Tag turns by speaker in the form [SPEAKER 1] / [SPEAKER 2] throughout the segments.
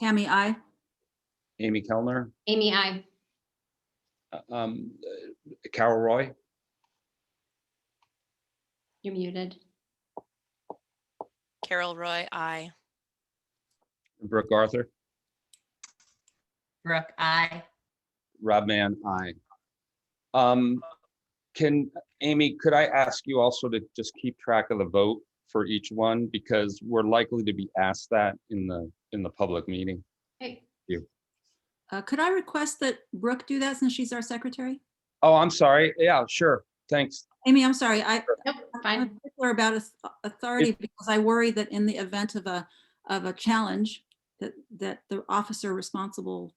[SPEAKER 1] Tammy, I.
[SPEAKER 2] Amy Kellner,
[SPEAKER 3] Amy, I.
[SPEAKER 2] uh, um, uh, Carol Roy,
[SPEAKER 3] You're muted.
[SPEAKER 4] Carol Roy, I.
[SPEAKER 2] Brooke Arthur,
[SPEAKER 5] Brooke, I.
[SPEAKER 2] Rob Mann, I. Um, can, Amy, could I ask you also to just keep track of the vote for each one? Because we're likely to be asked that in the, in the public meeting.
[SPEAKER 3] Hey,
[SPEAKER 1] Uh, Could I request that Brooke do that since she's our secretary?
[SPEAKER 2] Oh, I'm sorry. Yeah, sure. Thanks.
[SPEAKER 1] Amy, I'm sorry, I,
[SPEAKER 3] Nope,
[SPEAKER 1] I'm
[SPEAKER 3] fine.
[SPEAKER 1] particular about auth- authority because I worry that in the event of a, of a challenge, that, that the officer responsible,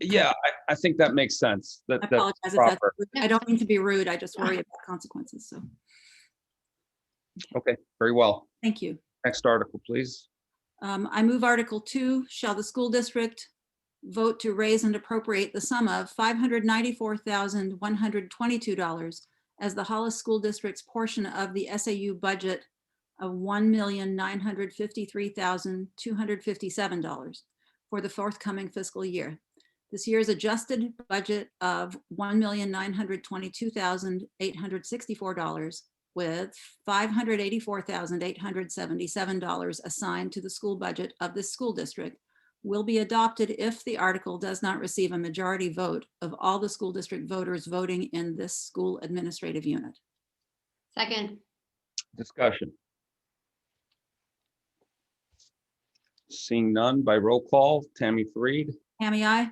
[SPEAKER 2] Yeah, I, I think that makes sense. That,
[SPEAKER 1] I
[SPEAKER 2] that,
[SPEAKER 1] apologize if that's,
[SPEAKER 2] proper.
[SPEAKER 1] rude. I don't mean to be rude, I just worry about consequences, so,
[SPEAKER 2] okay, very well.
[SPEAKER 1] thank you.
[SPEAKER 2] Next article, please.
[SPEAKER 1] Um, I move Article Two, shall the school district vote to raise and appropriate the sum of five hundred ninety-four thousand, one hundred twenty-two dollars as the Hollis School District's portion of the SAU budget of one million, nine hundred fifty-three thousand, two hundred fifty-seven dollars for the forthcoming fiscal year. This year's adjusted budget of one million, nine hundred twenty-two thousand, eight hundred sixty-four dollars with five hundred eighty-four thousand eight hundred seventy-seven dollars assigned to the school budget of this school district will be adopted if the article does not receive a majority vote of all the school district voters voting in this school administrative unit.
[SPEAKER 3] Second,
[SPEAKER 2] Discussion. Seeing none by roll call, Tammy Fareed,
[SPEAKER 1] Tammy, I?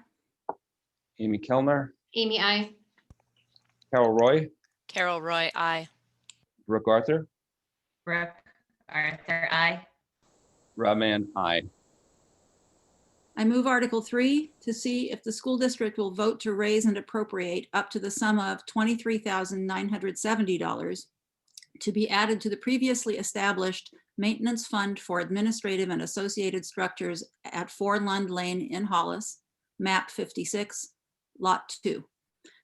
[SPEAKER 2] Amy Kellner,
[SPEAKER 3] Amy, I.
[SPEAKER 2] Carol Roy,
[SPEAKER 4] Carol Roy, I.
[SPEAKER 2] Brooke Arthur,
[SPEAKER 5] Brooke, Arthur, I.
[SPEAKER 2] Rob Mann, aye.
[SPEAKER 1] I move Article 3 to see if the school district will vote to raise and appropriate up to the sum of $23,970 to be added to the previously established Maintenance Fund for Administrative and Associated Structures at 4 Lund Lane in Hollis, MAP 56, Lot 2.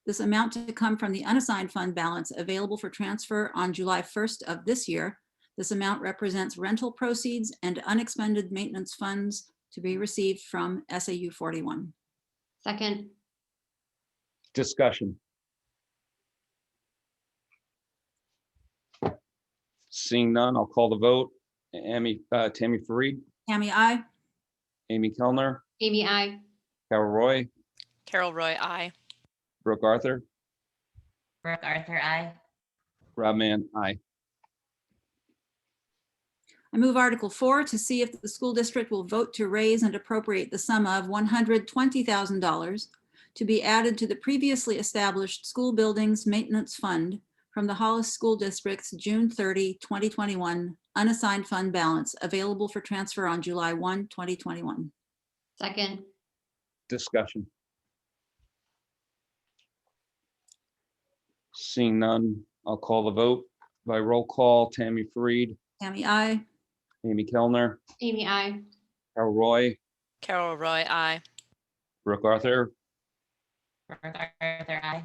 [SPEAKER 1] This amount to come from the unassigned fund balance available for transfer on July 1st of this year. This amount represents rental proceeds and unexpended maintenance funds to be received from SAU 41.
[SPEAKER 3] Second,
[SPEAKER 2] Discussion. Seeing none, I'll call the vote. Amy, uh, Tammy Fareed,
[SPEAKER 1] Tammy, I.
[SPEAKER 2] Amy Kellner,
[SPEAKER 3] Amy, I.
[SPEAKER 2] Carol Roy,
[SPEAKER 4] Carol Roy, I.
[SPEAKER 2] Brooke Arthur,
[SPEAKER 5] Brooke, Arthur, I.
[SPEAKER 2] Rob Mann, aye.
[SPEAKER 1] I move Article 4 to see if the school district will vote to raise and appropriate the sum of $120,000 to be added to the previously established School Buildings Maintenance Fund from the Hollis School District's June 30, 2021 unassigned fund balance available for transfer on July 1, 2021.
[SPEAKER 3] Second,
[SPEAKER 2] Discussion. Seeing none, I'll call the vote by roll call. Tammy Fareed,
[SPEAKER 1] Tammy, I.
[SPEAKER 2] Amy Kellner,
[SPEAKER 3] Amy, I.
[SPEAKER 2] Carol Roy,
[SPEAKER 4] Carol Roy, I.
[SPEAKER 2] Brooke Arthur,
[SPEAKER 5] Brooke, Arthur, I.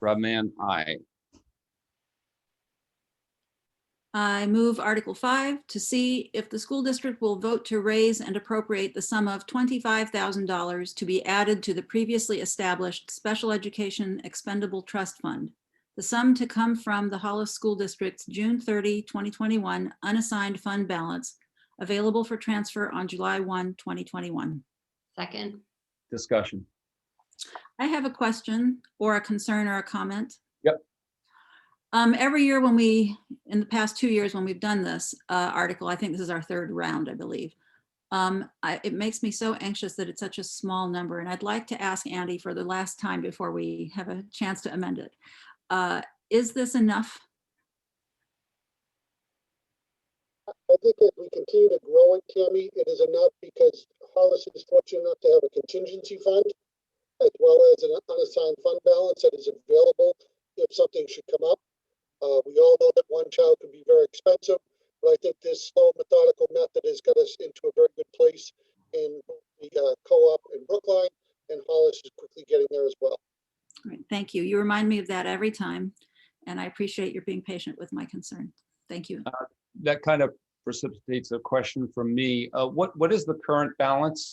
[SPEAKER 2] Rob Mann, aye.
[SPEAKER 1] I move Article 5 to see if the school district will vote to raise and appropriate the sum of $25,000 to be added to the previously established Special Education Expendable Trust Fund. The sum to come from the Hollis School District's June 30, 2021 unassigned fund balance available for transfer on July 1, 2021.
[SPEAKER 3] Second,
[SPEAKER 2] Discussion.
[SPEAKER 1] I have a question or a concern or a comment.
[SPEAKER 2] Yep.
[SPEAKER 1] Um, every year when we, in the past two years when we've done this, uh, article, I think this is our third round, I believe. Um, I, it makes me so anxious that it's such a small number and I'd like to ask Andy for the last time before we have a chance to amend it. Uh, is this enough?
[SPEAKER 6] I think if we continue to grow it, Tammy, it is enough because Hollis is fortunate enough to have a contingency fund as well as an unassigned fund balance that is available if something should come up. Uh, we all know that one child can be very expensive, but I think this slow methodical method has got us into a very good place in the uh, co-op in Brookline and Hollis is quickly getting there as well.
[SPEAKER 1] All Right, thank you. You remind me of that every time and I appreciate your being patient with my concern. Thank you.
[SPEAKER 2] That kind of precipitates a question from me. Uh, What, what is the current balance